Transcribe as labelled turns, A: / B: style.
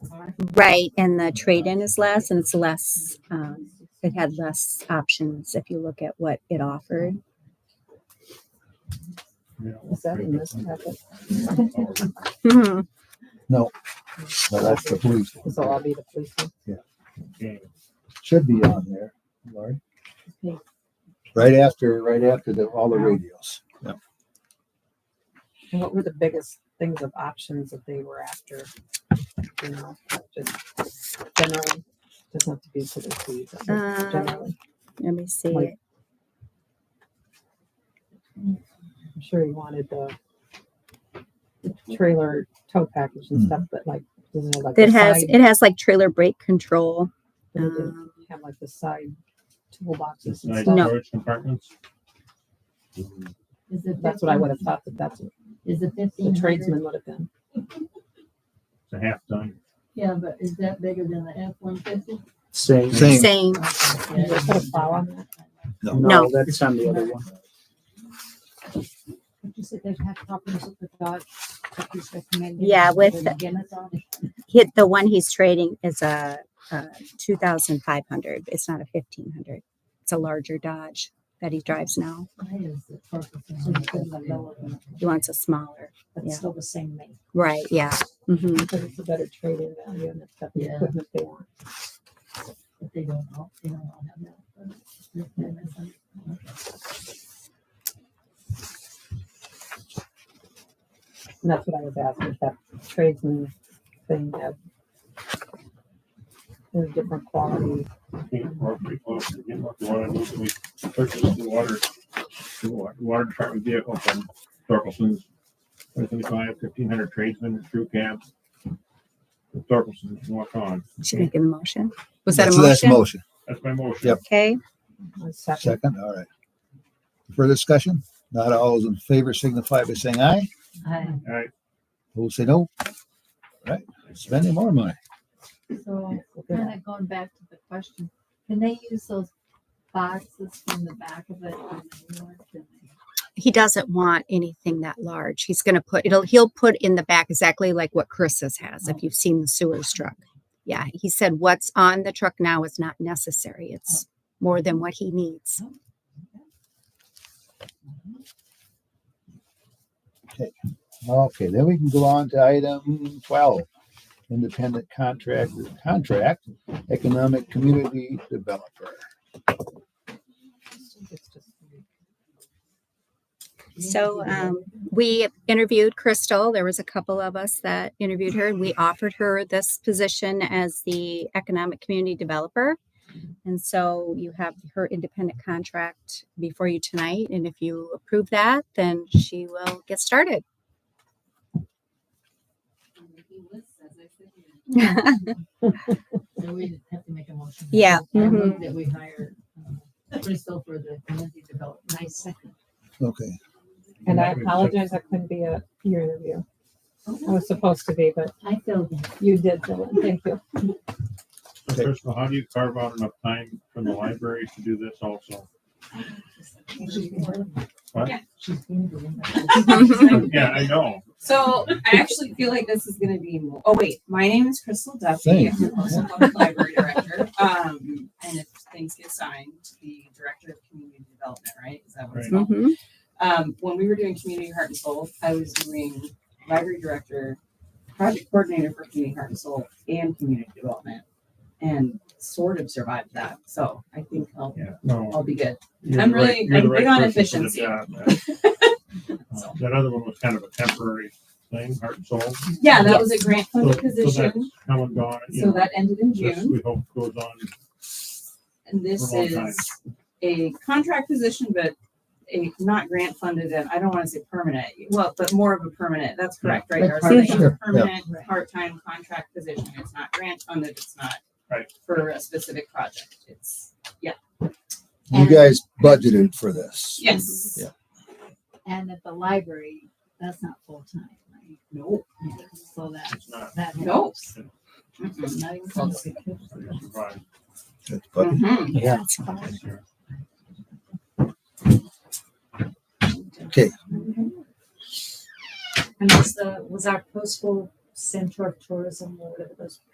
A: Right, and the trade-in is less, and it's less, um, it had less options if you look at what it offered.
B: Is that in this packet?
A: Mhm.
C: No, that's the police. one.
B: So I'll be the policeman.
C: Should be on there, Lori. Right after, right after the, all the radios.
B: And what were the biggest things of options that they were after? You know, just generally, doesn't have to be to the police, but
A: Um,
B: just generally.
A: Let me see.
B: Like- I'm sure he wanted the the trailer tow package and stuff, but like, doesn't it like.
A: It
B: the
A: has,
B: side-
A: it has like trailer brake control.
B: but it didn't
A: um,
B: Have like the side toolboxes
D: It's
B: and
D: nice
B: stuff.
A: No.
D: storage compartments.
E: Is the
B: That's what I would have thought that that's what
E: Is the
B: the
E: fifteen hundred?
B: tradesman would have been.
D: It's a half done.
E: Yeah, but is that bigger than the F one fifty?
F: Same.
C: Same.
A: Same,
B: Did they put a plow on that?
A: No.
F: That's on the other one.
E: You said they've had problems with the dog. that he's recommending.
A: Yeah, with-
E: Then again, it's on it.
A: hit, the one he's trading is a, uh two thousand five hundred, it's not a fifteen hundred. It's a larger Dodge that he drives now,
E: Why is it purple? So it's been the lower one.
A: he wants a smaller, Yeah.
E: That's still the same make.
A: right, yeah. hmm
B: Because it's a better trade-in value and it's got the
E: Yeah.
B: equipment they want.
E: But they don't, all- they don't all have that. They're- they're missing.
B: And that's what I was asking, if that tradesman thing had a different quality.
D: I think we're pretty close to getting what we wanted. We- We purchased the water, the wa- water department vehicle from Thorkelson's. One seventy-five, fifteen hundred tradesmen, crew cabs. Thorkelson's walk on.
A: Should make a motion. Was that a
C: That's that's
A: motion?
C: motion.
D: That's my motion.
C: Yep.
A: Okay,
B: A second,
C: Second, all right. Further discussion? Not all those in favor signify by saying aye.
E: I-
D: All right,
C: Who say no? Right, spending more money.
E: So
B: Look at
E: kind
B: that.
E: of going back to the question, can they use those boxes from the back of it? on the new one? Can they?
A: he doesn't want anything that large. He's gonna put, it'll, he'll put in the back exactly like what Chris's has, if you've seen the sewers truck. Yeah, he said what's on the truck now is not necessary. It's more than what he needs.
C: Okay, then we can go on to item twelve. Independent contractor, contract, economic community developer.
B: It's just-
A: So, um, we interviewed Crystal. There was a couple of us that interviewed her and we offered her this position as the economic community developer. And so you have her independent contract before you tonight. And if you approve that, then she will get started.
E: So we have to make a motion.
A: Yeah,
E: I move
A: mhm.
E: That we hire uh, Crystal for the community development. Nice second.
C: Okay,
B: And I apologize, I couldn't be at your interview. I was supposed to be, but
E: I filled in.
B: you did, Dylan. Thank you.
D: So Crystal, how do you carve out enough time from the library to do this also? What?
E: She's been doing that.
D: Yeah, I know.
G: So I actually feel like this is gonna be more, oh wait, my name is Crystal Duffy. I'm the Postal Public Library Director. Um, and if things get signed, the Director of Community Development, right? Is that what it's
D: Right.
G: called?
A: Mhm.
G: Um, when we were doing Community Heart and Soul, I was doing Library Director, Project Coordinator for Community Heart and Soul and Community Development. And sort of survived that, so I think I'll,
D: Yeah, no.
G: I'll be good.
D: You're
G: I'm
D: the right-
G: really-
D: you're the
G: I'm
D: right
G: big on
D: person for the job,
G: efficiency.
D: man. Uh, That other one was kind of a temporary thing, heart and soul.
G: Yeah, that was a grant
D: So-
G: funded
D: so that's
G: position,
D: Come and gone. you
G: so
D: know,
G: that ended in
D: this
G: June.
D: We hope goes on.
G: And this
D: For a long time.
G: is a contract position, but a, not grant funded and I don't want to say permanent, well, but more of a permanent, that's correct, right?
C: Like
G: Darcy? It's
C: part-time.
G: a Permanent,
E: Yeah.
G: part-time contract position. It's not grant funded, it's not
D: Right.
G: for a specific project. It's,
C: you guys budgeted for this.
G: yes.
C: Yeah.
E: And at the library, that's not full time, right?
G: No.
E: So that,
D: It's not.
E: that
G: No.
E: helps.
G: Mhm.
E: Not even close.
D: Right.
C: It's budgeted.
G: Mhm.
C: Yeah.
D: Sure.
C: Okay,
E: And was the, was our postal center of tourism or whatever those